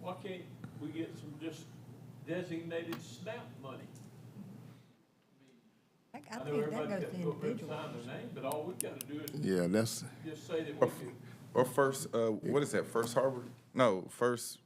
why can't we get some just designated SNAP money? I I I know think that everybody goes got to to go up there and individual. sign their name, but all we gotta do is Yeah, that's, just say that we can, Or First, uh, what is that, First Harbor? No, First,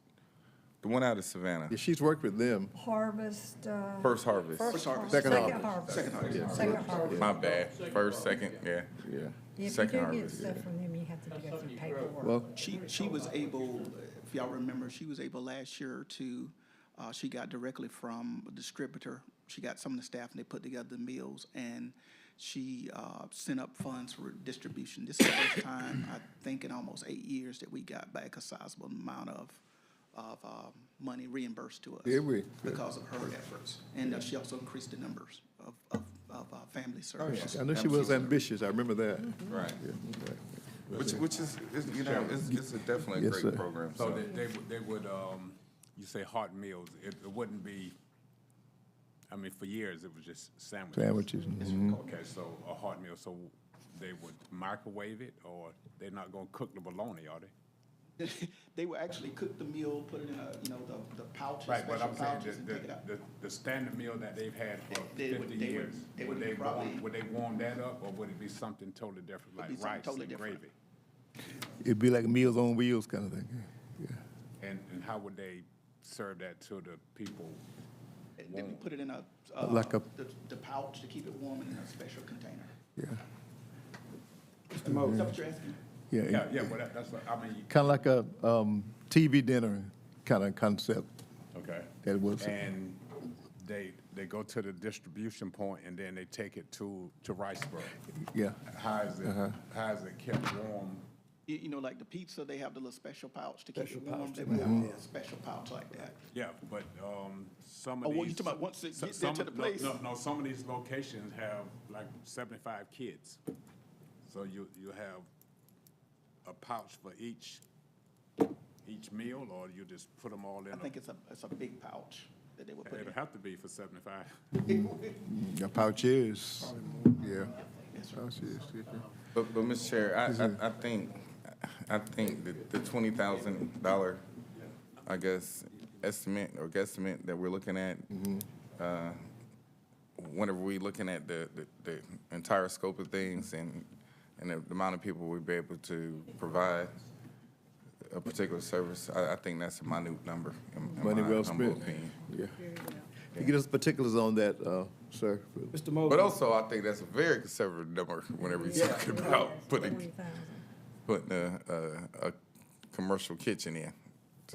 the one out of Savannah, yeah, she's worked with them. Harvest, uh. First Harvest. first har- Second harvest. Second Yeah, harvest. Second harvest. My bad, first, second, yeah. Yeah. Yeah, If you Second do get harvest, stuff from them, you have to do it through paperwork. Well, She, she was able, if y'all remember, she was able last year to, uh, she got directly from a distributor. She got some of the staff and they put together the meals and she, uh, sent up funds for distribution. This is the first time, I think in almost eight years, that we got back a sizable amount of, of, uh, money reimbursed to us. Did we? Because of her efforts. And uh, she also increased the numbers of, of, of, uh, family services. Oh, I know she was ambitious, I remember that. Right. Yeah, okay. Which, which is, is, you know, it's, it's a definitely a Yes, sir. great program, So so. they, they would, they would, um, you say hot meals, it, it wouldn't be, I mean, for years, it was just sandwiches. Sandwiches, mhm. Okay, so a hot meal, so they would microwave it, or they're not gonna cook the bologna, are they? They will actually cook the meal, put it in a, you know, the, the pouches, Right, but special I'm saying, pouches and the, take it out. the, the, the standard meal that they've had for They- they would- fifty they would- years, they would would they probably- warm, would they warm that up, or would it be something totally different, be like something rice totally and different. gravy? It'd be like Meals on Wheels kind of thing, yeah. And, and how would they serve that to the people? And Then we put it in a, uh, Like a- the, the pouch to keep it warm and in a special container. Yeah, Mr. Mo. Is that what you're asking? Yeah, yeah. yeah, well, that, that's what, I mean, Kind of like a um, TV dinner kind of concept. Okay. That was- And they, they go to the distribution point and then they take it to, to Riceburg. Yeah, How is it, how is it kept warm? You, you know, like the pizza, they have the little special pouch to keep it warm. They would have a special pouch like that. Yeah, but, um, some Oh, of these. well, you talking about once it so- get there to some- the no, place? No, no, some of these locations have like seventy-five kids. So you, you have a pouch for each, each meal, or you just put them all I in? a- think it's a, it's a big pouch that they would put It'll in. have to be for seventy-five. yeah, pouches, yeah. Yes, sir. Pouches, yeah. But, but, Mr. Chair, I, I, I think, I think that the twenty thousand dollar, I guess, estimate or guesstimate that we're looking at, Mm-hmm. uh, whenever we looking at the, the, the entire scope of things and, and the amount of people we'd be able to provide a particular service, I, I think that's a minute number. in- in Money my well humble spent. opinion. Yeah. You get us particulars on that, uh, sir? Mr. Mosley. But also, I think that's a very conservative number whenever you're talking about putting, 40,000. putting a, a, a commercial kitchen in. I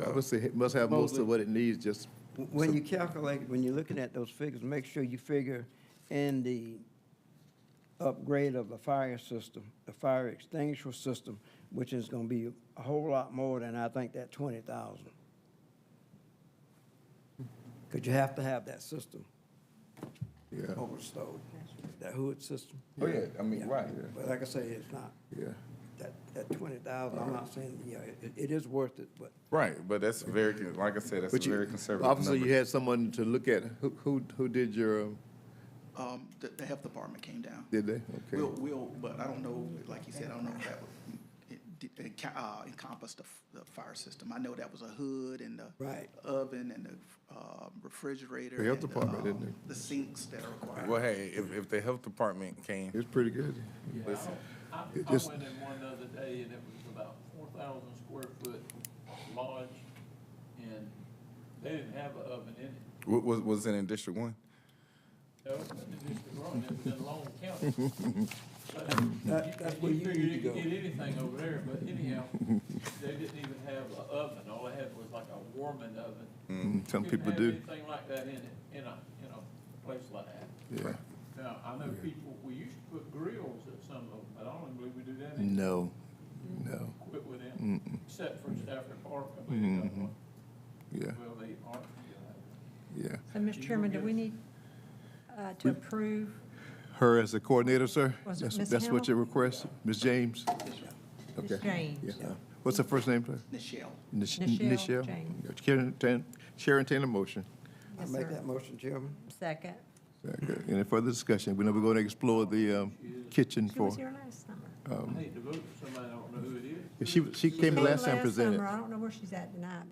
So, would say it must have most of what it needs, just, When you calculate, when you're looking at those figures, make sure you figure in the upgrade of the fire system, the fire extinguisher system, which is gonna be a whole lot more than I think that twenty thousand. Cause you have to have that system yeah, over stove, that hood system. oh yeah, I mean, right. But like I say, it's not, yeah. that, that twenty thousand, I'm not saying, yeah, it, it is worth it, but Right, but that's very, con- like I said, that's But a you- very conservative Obviously, you number. had someone to look at, who, who, who did your, um, Um, the, the health department came down. did they? Okay. We'll, we'll, but I don't know, like you said, I don't know if that would, it, did- it ca- uh, encompass the, f- the fire system. I know that was a hood and the. Right. Oven and the, uh, refrigerator. The health and department, um, didn't it? The sinks that are required. Well, hey, if, if the health department came, It's pretty good. listen, I, I It went just- in one the other day and it was about four thousand square foot lodge and they didn't have an oven in it. wa- was, was it in District One? No, it was just wrong, it was in Long County. But that, that's where You you figured need to you go. could get anything over there, but anyhow, they didn't even have an oven, all they had was like a warming oven. Mm, Some Couldn't people have do, Anything like that in it, in a, in a place like that. yeah. Now, I know people, we used to put grills at some of them, but I don't believe we do that anymore, No, no, quit with them, except for Stafford Park, I believe they got one. Mm-hmm. yeah, Well, they aren't, yeah. yeah. So, Mr. Chairman, do we need uh, to approve? Her as the coordinator, sir? Was it That's- Ms. That's what Hill? your request, Ms. James? Ms. Okay. James. Yeah. What's her first name, sir? Nichelle. Nish- Nichelle Nichelle? James. Yeah, Chair, entertain- Chair, entertain a motion. I Yes, make sir. that motion, Chairman. Second. Very good. Any further discussion? We know we're going to explore the um, kitchen She for, was here last summer. Um, I hate to vote for somebody I don't know who it is. she, she came last time presented. summer. I don't know where she's at tonight,